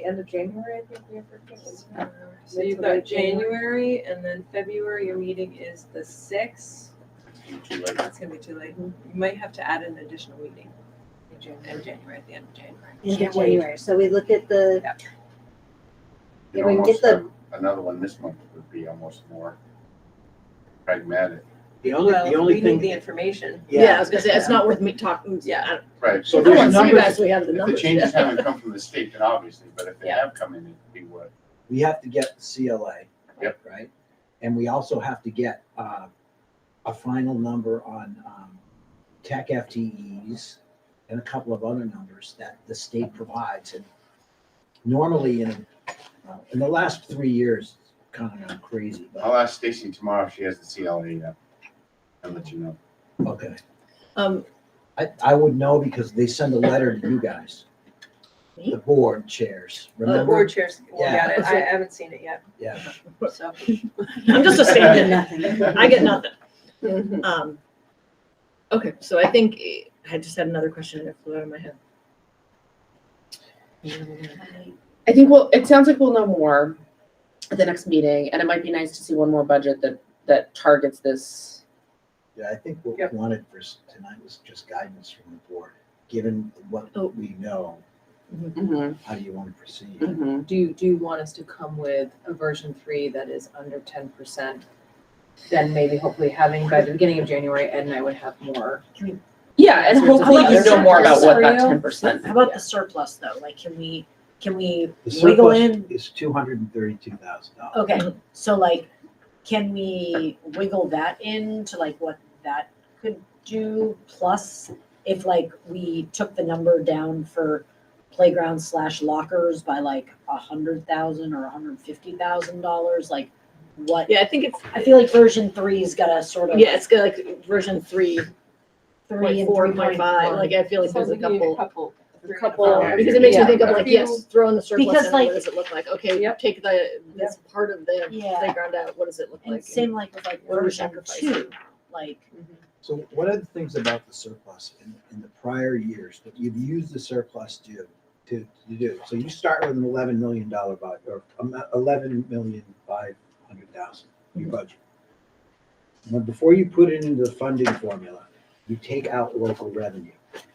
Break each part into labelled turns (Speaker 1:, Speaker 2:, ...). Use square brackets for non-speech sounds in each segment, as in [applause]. Speaker 1: end of January, I think we have forgiven.
Speaker 2: So you've got January and then February, your meeting is the sixth.
Speaker 3: Too late.
Speaker 2: That's gonna be too late. You might have to add an additional meeting in Jan- in January, at the end of January.
Speaker 4: in
Speaker 1: Can't wait.
Speaker 4: January, so we look at the,
Speaker 3: You'd
Speaker 4: Yeah, we can
Speaker 3: almost
Speaker 4: get the-
Speaker 3: have another one this month would be almost more pragmatic,
Speaker 5: The only,
Speaker 2: Well,
Speaker 5: the only
Speaker 2: We need the
Speaker 5: thing,
Speaker 2: information.
Speaker 5: yeah,
Speaker 4: yeah, I was gonna say, it's not worth me talking, yeah, I don't-
Speaker 3: right?
Speaker 5: So
Speaker 3: So
Speaker 4: I
Speaker 5: if there's
Speaker 3: there's
Speaker 4: want to see
Speaker 3: numbers,
Speaker 4: we have
Speaker 3: if
Speaker 4: the
Speaker 3: the
Speaker 4: numbers. [laughs]
Speaker 3: changes haven't come from the state, then obviously, but if they
Speaker 2: Yeah.
Speaker 3: have come in, it'd be what?
Speaker 5: we have to get the CLA.
Speaker 3: Yep.
Speaker 5: Right? And we also have to get, uh, a final number on, um, tech FTEs and a couple of other numbers that the state provides. And normally in, uh, in the last three years, it's kind of gone crazy, but,
Speaker 3: I'll ask Stacy tomorrow if she has the CLA yet. I'll let you know.
Speaker 5: okay.
Speaker 4: Um,
Speaker 5: I, I would know because they send a letter to you guys.
Speaker 4: Me?
Speaker 5: The board chairs,
Speaker 2: Oh, The
Speaker 5: remember?
Speaker 2: board chairs, we
Speaker 5: Yeah.
Speaker 2: got it.
Speaker 6: [laughs]
Speaker 2: I haven't seen it yet,
Speaker 5: Yeah.
Speaker 2: so.
Speaker 4: I'm just a stand in,
Speaker 1: nothing.
Speaker 4: I get nothing.
Speaker 2: Mhm.
Speaker 4: Um, okay, so I think, eh, I just had another question and it flew out of my head.
Speaker 7: I think we'll, it sounds like we'll know more at the next meeting, and it might be nice to see one more budget that, that targets this.
Speaker 5: Yeah, I think what we
Speaker 2: Yep.
Speaker 5: wanted for s- tonight was just guidance from the board, given what
Speaker 4: Oh.
Speaker 5: we know,
Speaker 7: Mm-hmm,
Speaker 5: how do you want to proceed?
Speaker 7: mm-hmm.
Speaker 6: Do you, do you want us to come with a version three that is under ten percent? Then maybe hopefully having by the beginning of January, Ed and I would have more.
Speaker 7: Yeah, and
Speaker 6: So it's
Speaker 7: hopefully
Speaker 4: about
Speaker 7: you
Speaker 4: the
Speaker 7: know more about what that
Speaker 6: surplus
Speaker 7: ten percent.
Speaker 4: How about the surplus though? Like, can we, can we
Speaker 5: The
Speaker 4: wiggle
Speaker 5: surplus
Speaker 4: in?
Speaker 5: is two hundred and thirty-two thousand
Speaker 8: Oh.
Speaker 5: dollars.
Speaker 4: Okay, so like, can we wiggle that in to like what that could do? Plus, if like we took the number down for playground slash lockers by like a hundred thousand or a hundred and fifty thousand dollars, like what?
Speaker 8: Yeah, I think it's
Speaker 4: I feel like version three's got a sort of.
Speaker 8: yeah, it's got like version three
Speaker 4: Three
Speaker 8: point
Speaker 4: and
Speaker 8: four
Speaker 4: three
Speaker 8: point five. Like I feel like
Speaker 2: Sounds
Speaker 8: there's a
Speaker 2: like you need
Speaker 8: couple,
Speaker 2: Couple.
Speaker 8: a couple
Speaker 3: Yeah,
Speaker 8: because it makes
Speaker 3: yeah.
Speaker 8: me think of
Speaker 2: A
Speaker 8: like
Speaker 2: few-
Speaker 8: yes, throw in the surplus
Speaker 4: Because,
Speaker 8: and then
Speaker 4: like-
Speaker 8: what does it look like? Okay,
Speaker 2: Yep.
Speaker 8: take the this part of the
Speaker 4: Yeah.
Speaker 8: playground out. What does it look
Speaker 4: And
Speaker 8: like?
Speaker 4: same like with like
Speaker 8: What are we
Speaker 4: version
Speaker 8: sacrificing?
Speaker 4: two, like,
Speaker 5: So one of the things about the surplus in, in the prior years, that you've used the surplus to, to, to do, so you start with an eleven million dollar budget, or um, eleven million five hundred thousand, your budget. Now, before you put it into the funding formula, you take out local revenue.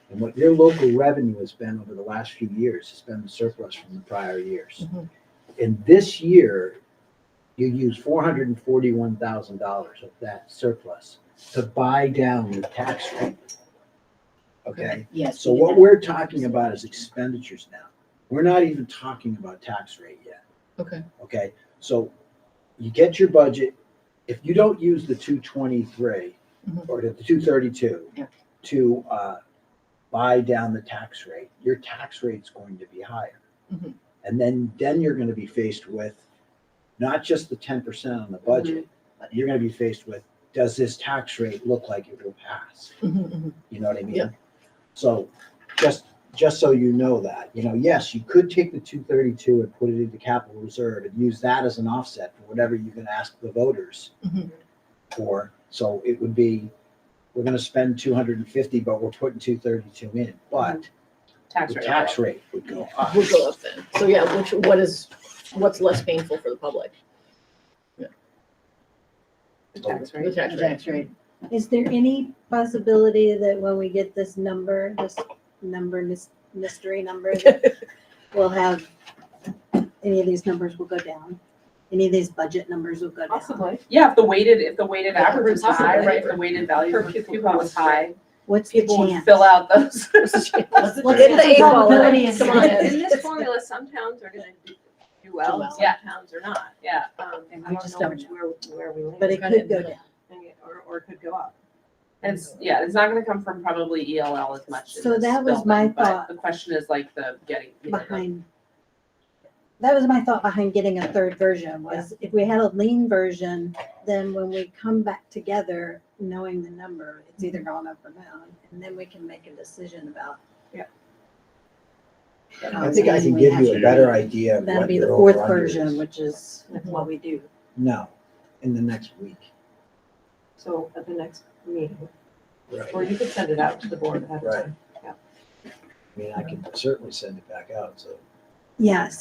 Speaker 5: And what your local revenue has been over the last few years has been the surplus from the prior years.
Speaker 4: Mhm.
Speaker 5: And this year, you use four hundred and forty-one thousand dollars of that surplus to buy down the tax rate. Okay?
Speaker 4: yes.
Speaker 5: So
Speaker 4: we did
Speaker 5: what
Speaker 4: that.
Speaker 5: we're talking about is expenditures now. We're not even talking about tax rate yet.
Speaker 8: Okay.
Speaker 5: Okay, so you get your budget, if you don't use the two twenty-three
Speaker 4: Mhm.
Speaker 5: or the two thirty-two
Speaker 4: Yeah.
Speaker 5: to, uh, buy down the tax rate, your tax rate's going to be higher.
Speaker 4: Mhm.
Speaker 5: And then, then you're gonna be faced with not just the ten percent on the budget, but you're gonna be faced with, does this tax rate look like it will pass?
Speaker 4: Mhm,
Speaker 8: [laughs]
Speaker 4: mhm.
Speaker 5: You know what I mean?
Speaker 8: Yeah.
Speaker 5: So just, just so you know that, you know, yes, you could take the two thirty-two and put it into capital reserve and use that as an offset for whatever you're gonna ask the voters
Speaker 4: Mhm.
Speaker 5: for. So it would be, we're gonna spend two hundred and fifty, but we're putting two thirty-two in, but
Speaker 2: Tax
Speaker 5: the
Speaker 2: rate.
Speaker 5: tax rate would go up.
Speaker 8: Would go up then. So yeah, which what is what's less painful for the public?
Speaker 6: The tax
Speaker 8: The
Speaker 6: rate.
Speaker 8: tax rate.
Speaker 6: rate.
Speaker 4: Is there any possibility that when we get this number, this number, mys- mystery
Speaker 1: [laughs]
Speaker 4: number, that we'll have, any of these numbers will go down? Any of these budget numbers will go down?
Speaker 1: Possibly, yeah, if the weighted, if the weighted
Speaker 2: Yeah,
Speaker 1: average was high,
Speaker 2: possibly.
Speaker 1: right, if the weighted value
Speaker 2: For
Speaker 1: of
Speaker 2: people
Speaker 1: people was high,
Speaker 4: What's the
Speaker 1: people would
Speaker 4: chance?
Speaker 1: fill out those. [laughs]
Speaker 4: What's what's
Speaker 8: Get the
Speaker 4: the
Speaker 8: eight ball out.
Speaker 4: probability is?
Speaker 8: Come on in.
Speaker 2: [laughs] In this formula, some towns are gonna do- do well, and some
Speaker 1: Yeah.
Speaker 2: towns are not.
Speaker 1: Yeah,
Speaker 2: Um,
Speaker 4: And
Speaker 2: I
Speaker 4: we
Speaker 2: don't
Speaker 4: just
Speaker 2: know
Speaker 4: don't
Speaker 2: which, where, where we land.
Speaker 4: But it
Speaker 8: Kind of
Speaker 4: could go
Speaker 8: in the
Speaker 4: down.
Speaker 2: Or, or it could go up.
Speaker 1: it's, yeah, it's not gonna come from probably ELL as much in
Speaker 4: So
Speaker 1: this
Speaker 4: that was my
Speaker 1: building, but
Speaker 4: thought.
Speaker 1: The question is like the getting, you know, the-
Speaker 4: behind. That was my thought behind getting a third version was if we had a lean version, then when we come back together, knowing the number, it's either gone up or down, and then we can make a decision about.
Speaker 2: Yeah.
Speaker 5: I think I can give you a better idea of
Speaker 4: That'll
Speaker 5: what
Speaker 4: be the
Speaker 5: your
Speaker 4: fourth
Speaker 5: over-under is.
Speaker 4: version, which is what we do.
Speaker 5: No, in the next week.
Speaker 2: So at the next meeting,
Speaker 5: Right.
Speaker 2: or you could send it out to the board ahead of
Speaker 5: Right.
Speaker 2: time.
Speaker 5: I mean, I can certainly send it back out, so.
Speaker 4: Yes.